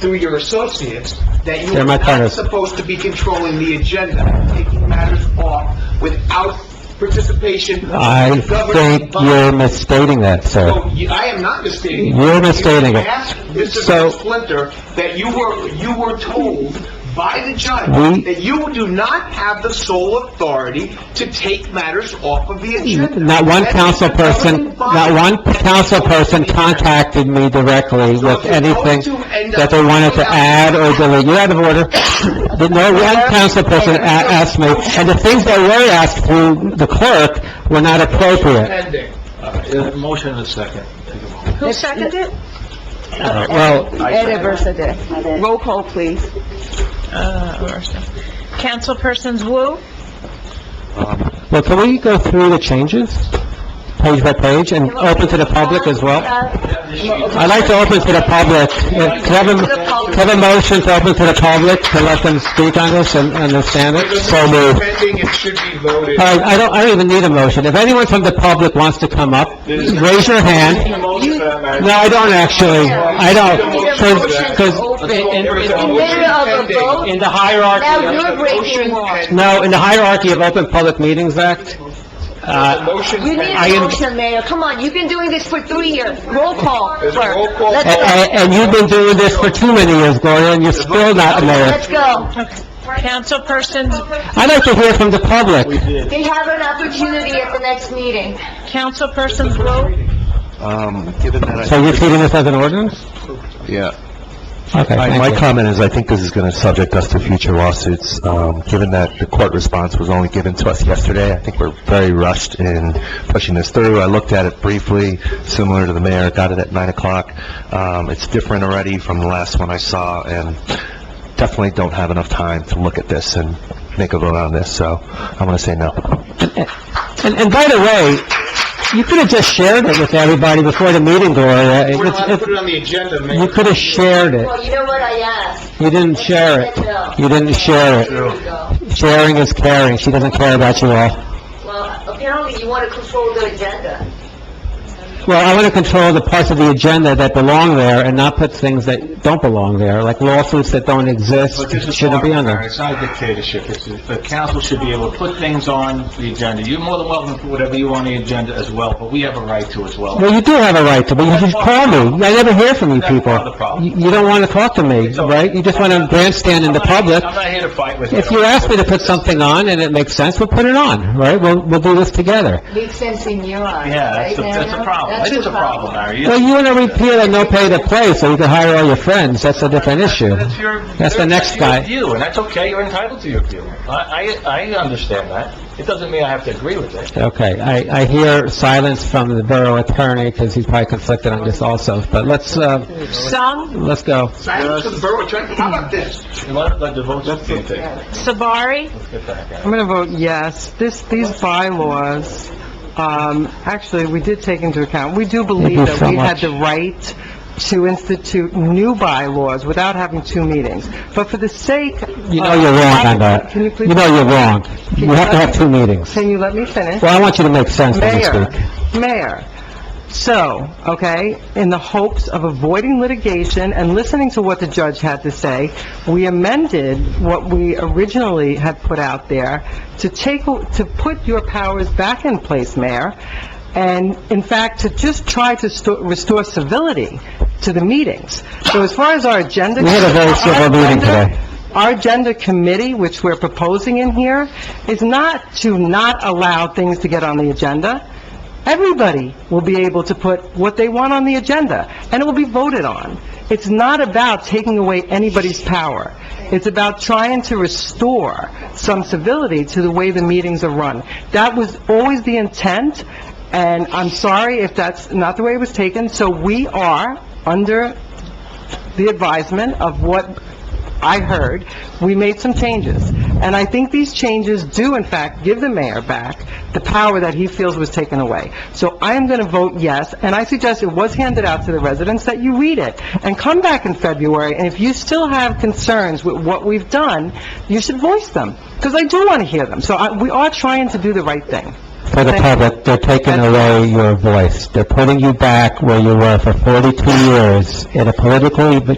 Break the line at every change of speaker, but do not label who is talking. through your associates, that you
They're
are
my
not
partners.
supposed to be controlling the agenda, taking matters off without participation of
I
the governing
think
body.
you're misstating that,
No,
sir.
you- I am not misstating. it.
You're misstating
You
it.
asked Mr.
So-
Splinter that you were, you were told by the
We-
judge that you do not have the sole authority to take matters off of the agenda.
Not one
That is
council
the governing
person,
body.
not one council person contacted me directly with anything that they wanted to add or delete. You're out of order. But No one council person a- asked me, and the things that were asked through the clerk were not appropriate.
Pending.
Motion and a second.
Who seconded it?
Uh, Well,
Ed Aversa did. Roll call, please.
Uh, Councilpersons Wu,
well, can we go through the changes, page by page, and open to the public as well? I'd like to open to the public, Uh, can I have a- can I have a motion to open to the public, to let them speak on this and understand it? So moved.
Pending, it should be voted.
All right, I don't, I don't even need a motion. If anyone from the public wants to come up, raise your hand. No, I don't actually, I don't, because, in the
Now
hierarchy,
you're breaking law.
of- no, in the hierarchy of Open Public Meetings Act, uh,
You need
I
a
am-
motion, Mayor. Come on, you've been doing this for three years. Roll call,
There's a roll
clerk.
call.
Let's
and,
go.
and you've been doing this for too many years, Gloria, and you're still not a mayor.
Let's go.
councilpersons,
I'd like to hear from the public.
They have an opportunity at the next meeting.
councilpersons Wu,
Um, given that
So you're treating this as an ordinance?
I... Yeah.
Okay,
My, my
thank you.
comment is, I think this is gonna subject us to future lawsuits, um, given that the court response was only given to us yesterday. I think we're very rushed in pushing this through. I looked at it briefly, similar to the mayor, got it at nine o'clock. Um, it's different already from the last one I saw, and definitely don't have enough time to look at this and make a vote on this, so I'm gonna say no.
And, and by the way, you could have just shared it with everybody before the meeting, Gloria.
We're
It's-
allowed to
it's-
put it on the agenda, Mayor.
You could have shared it.
Well, you know what I asked?
You didn't share it. You didn't share
Here we
it.
go.
Sharing is caring. She doesn't care about you all.
Well, apparently you want to control the agenda.
Well, I want to control the parts of the agenda that belong there and not put things that don't belong there, like lawsuits that don't exist,
But this is
shouldn't be on there.
It's not a dictatorship, it's, the council should be able to put things on the agenda. You're more than welcome to put whatever you want on the agenda as well, but we have a right to as well.
Well, you do have a right to, but you should call me. I never hear from you
That's
people.
part of the problem.
You you don't want to talk to me, right? You just want to grandstand in the public.
I'm not here to fight with you.
If you ask me to put something on and it makes sense, we'll put it on, right? We'll, we'll do this together.
Makes sense in your eyes,
Yeah, that's
right,
the, that's the
Mayor?
problem.
That's
It is
the
a problem, Larry. You-
Well, you want to repeal and no pay to play, so you can hire all your friends. That's a different issue.
That's your...
That's the next
your
guy.
view, and that's okay, you're entitled to your view. I, I, I understand that. It doesn't mean I have to agree with it.
Okay, I, I hear silence from the borough attorney, because he's probably conflicted on this also, but let's, uh,
Sung,
let's go.
Silence of the borough attorney, how about this?
You want to let the votes dictate.
Sabari,
Let's get that guy.
I'm going to vote yes. This, these bylaws, um, actually, we did take into account, we do
you
believe that
so
we had
much.
the right to institute new bylaws without having two meetings. But for the sake...
You know you're wrong on that.
Can you please...
You know you're wrong. You have to have two meetings.
Can you let me finish?
Well, I want you to make sense when you
Mayor,
speak.
Mayor, so, okay, in the hopes of avoiding litigation and listening to what the judge had to say, we amended what we originally had put out there to take, to put your powers back in place, Mayor, and in fact, to just try to sto- restore civility to the meetings. So as far as our agenda...
We had a very civil
Our
meeting
agenda-
today.
our agenda committee, which we're proposing in here, is not to not allow things to get on the agenda. Everybody will be able to put what they want on the agenda, and it will be voted on. It's not about taking away anybody's power. It's about trying to restore some civility to the way the meetings are run. That was always the intent, and I'm sorry if that's not the way it was taken, so we are under the advisement of what I heard, we made some changes. And I think these changes do, in fact, give the mayor back the power that he feels was taken away. So I am going to vote yes, and I suggest it was handed out to the residents, that you read it, and come back in February, and if you still have concerns with what we've done, you should voice them, because I do want to hear them. So I- we are trying to do the right thing.
For the public, they're taking away your voice. They're putting you back where you were for 42 years in a politically